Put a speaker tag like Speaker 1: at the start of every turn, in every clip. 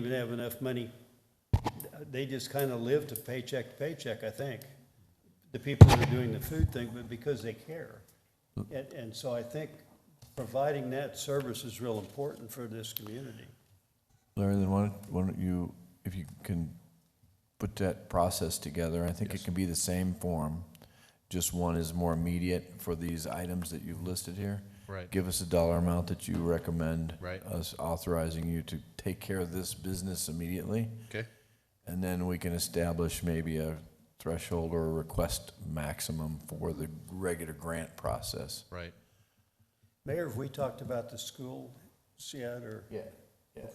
Speaker 1: even have enough money. They just kind of live to paycheck to paycheck, I think. The people who are doing the food thing, but because they care. And, and so I think providing that service is real important for this community.
Speaker 2: Larry, then why don't, why don't you, if you can put that process together, I think it can be the same form. Just one is more immediate for these items that you've listed here.
Speaker 3: Right.
Speaker 2: Give us a dollar amount that you recommend.
Speaker 3: Right.
Speaker 2: Us authorizing you to take care of this business immediately.
Speaker 3: Okay.
Speaker 2: And then we can establish maybe a threshold or a request maximum for the regular grant process.
Speaker 3: Right.
Speaker 1: Mayor, have we talked about the school yet, or?
Speaker 2: Yeah.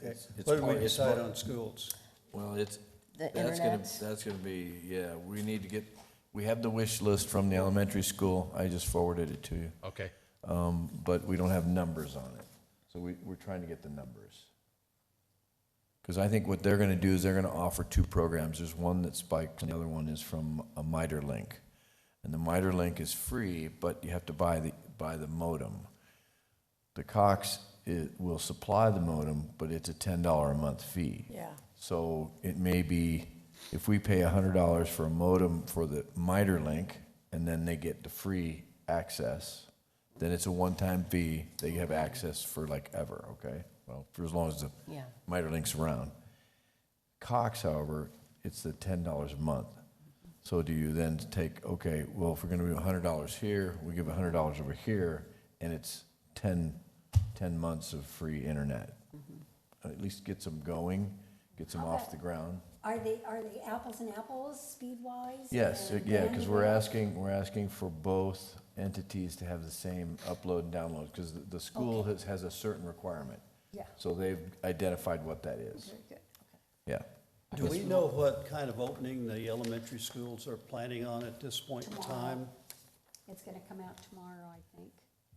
Speaker 1: Okay, what did we decide on schools?
Speaker 2: Well, it's,
Speaker 4: The
Speaker 2: That's gonna,
Speaker 4: internet?
Speaker 2: that's gonna be, yeah, we need to get, we have the wish list from the elementary school, I just forwarded it to you.
Speaker 3: Okay.
Speaker 2: Um, but we don't have numbers on it, so we, we're trying to get the numbers. Cause I think what they're gonna do is they're gonna offer two programs, there's one that's Spike, and the other one is from a MITRE link. And the MITRE link is free, but you have to buy the, buy the modem. The Cox, it will supply the modem, but it's a ten dollar a month fee.
Speaker 4: Yeah.
Speaker 2: So it may be, if we pay hundred dollars for a modem for the MITRE link, and then they get the free access, then it's a one-time fee, they have access for like ever, okay? Well, for as long as the
Speaker 4: Yeah.
Speaker 2: MITRE link's around. Cox, however, it's the ten dollars a month. So do you then take, okay, well, if we're gonna do hundred dollars here, we give hundred dollars over here, and it's 10 10 months of free internet? At least gets them going, gets them off the ground.
Speaker 5: Are they, are they apples and apples, speed-wise?
Speaker 2: Yes,
Speaker 5: and
Speaker 2: yeah, because we're
Speaker 5: bandwidth?
Speaker 2: asking, we're asking for both entities to have the same upload and download, because the, the school has, has a certain requirement.
Speaker 5: Yeah.
Speaker 2: So they've identified what that is.
Speaker 5: Very good.
Speaker 2: Yeah.
Speaker 1: Do we know what kind of opening the elementary schools are planning on at this point in time?
Speaker 5: It's gonna come out tomorrow, I think.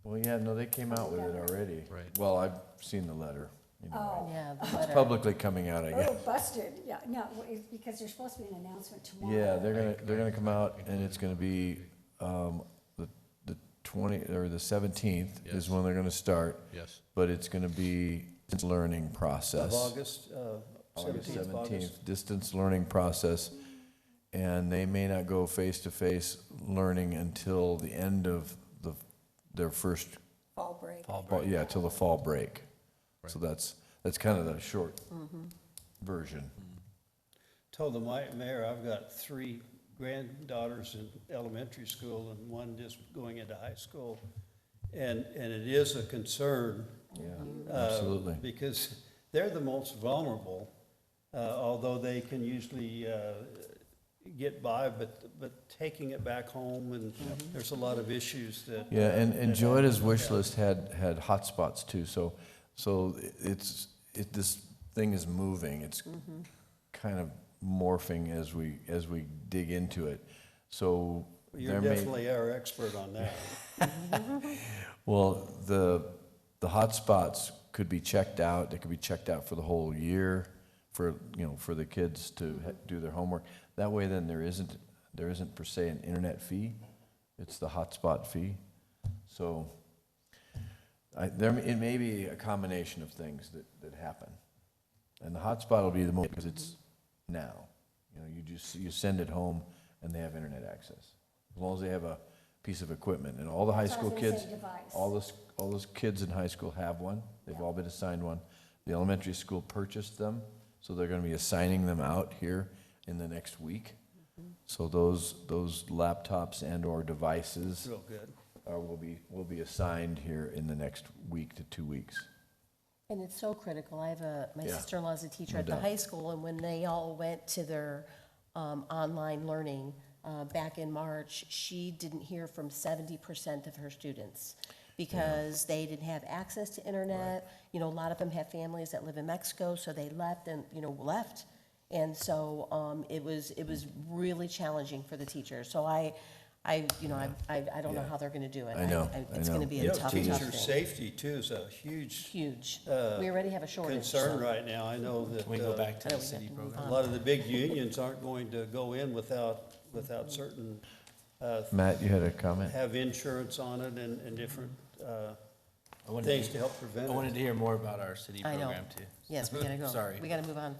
Speaker 2: Well, yeah, no, they came out with it already.
Speaker 3: Right.
Speaker 2: Well, I've seen the letter. you know,
Speaker 5: Oh,
Speaker 4: Yeah, the
Speaker 2: It's
Speaker 4: letter.
Speaker 2: publicly coming out, I guess.
Speaker 5: oh, busted, yeah, no, it's because there's supposed to be an announcement tomorrow.
Speaker 2: Yeah, they're gonna, they're gonna come out and it's gonna be, um, the, the twenty, or the seventeenth is
Speaker 3: Yes.
Speaker 2: when they're gonna start,
Speaker 3: Yes.
Speaker 2: but it's gonna be a learning
Speaker 1: Of
Speaker 2: process.
Speaker 1: August, uh,
Speaker 2: August
Speaker 1: 17th of August?
Speaker 2: seventeenth, distance learning process. And they may not go face-to-face learning until the end of the, their first,
Speaker 5: Fall break.
Speaker 2: fall- yeah, till the fall break. So that's, that's kind of the short version.
Speaker 1: Told the mi- mayor, I've got three granddaughters in elementary school and one just going into high school. And, and it is a concern. uh,
Speaker 2: Absolutely.
Speaker 1: Because they're the most vulnerable, uh, although they can usually uh, get by, but, but taking it back home and
Speaker 4: Mm-hmm.
Speaker 1: there's a lot of issues that.
Speaker 2: Yeah, and, and
Speaker 1: that happen.
Speaker 2: Joetta's wish list had, had hotspots too, so, so it's, it, this thing is moving, it's kind of morphing as we, as we dig into it, so.
Speaker 1: You're
Speaker 2: there may-
Speaker 1: definitely our expert on that.
Speaker 2: Well, the, the hotspots could be checked out, they could be checked out for the whole year, for, you know, for the kids to ha- do their homework. That way then there isn't, there isn't per se an internet fee, it's the hotspot fee. So, I, there, it may be a combination of things that, that happen. And the hotspot will be the most, because it's now. You know, you just, you send it home and they have internet access. As long as they have a piece of equipment and all the high
Speaker 5: That's what I
Speaker 2: school
Speaker 5: was gonna
Speaker 2: kids,
Speaker 5: say, device.
Speaker 2: all those, all those kids in high school have one. They've all been assigned one. The elementary school purchased them, so they're gonna be assigning them out here in the next week. So those, those laptops and or devices
Speaker 1: Real good.
Speaker 2: are, will be, will be assigned here in the next week to two weeks.
Speaker 4: And it's so critical. I have a, my
Speaker 2: Yeah.
Speaker 4: sister-in-law's a teacher
Speaker 2: No
Speaker 4: at the
Speaker 2: doubt.
Speaker 4: high school, and when they all went to their um, online learning uh, back in March, she didn't hear from seventy percent of her students because they didn't have access to internet. You know, a lot of them have families that live in Mexico, so they left and, you know, left. And so um, it was, it was really challenging for the teachers. So I, I, you know, I, I I don't know
Speaker 2: Yeah.
Speaker 4: how they're gonna do it.
Speaker 2: I know, I
Speaker 4: It's gonna
Speaker 2: know.
Speaker 4: be
Speaker 1: You
Speaker 4: a
Speaker 1: know,
Speaker 4: tough, tough thing
Speaker 1: teacher safety too is a huge
Speaker 4: huge. We already have a shortage.
Speaker 1: concern
Speaker 4: so-
Speaker 1: right now. I know that.
Speaker 6: Can we go
Speaker 1: uh,
Speaker 6: back to
Speaker 4: I know
Speaker 6: the
Speaker 4: we have
Speaker 6: city
Speaker 4: to move
Speaker 6: program?
Speaker 1: A lot of the big unions aren't going to go in without, without certain, uh,
Speaker 2: Matt, you had a comment?
Speaker 1: have insurance on it and, and different, uh,
Speaker 3: I wanted to
Speaker 1: things
Speaker 3: hear-
Speaker 1: to help prevent
Speaker 3: I
Speaker 1: it.
Speaker 3: wanted to hear more about our city
Speaker 4: I know.
Speaker 3: program too.
Speaker 4: Yes, we gotta go.
Speaker 3: Sorry.
Speaker 4: We gotta move on.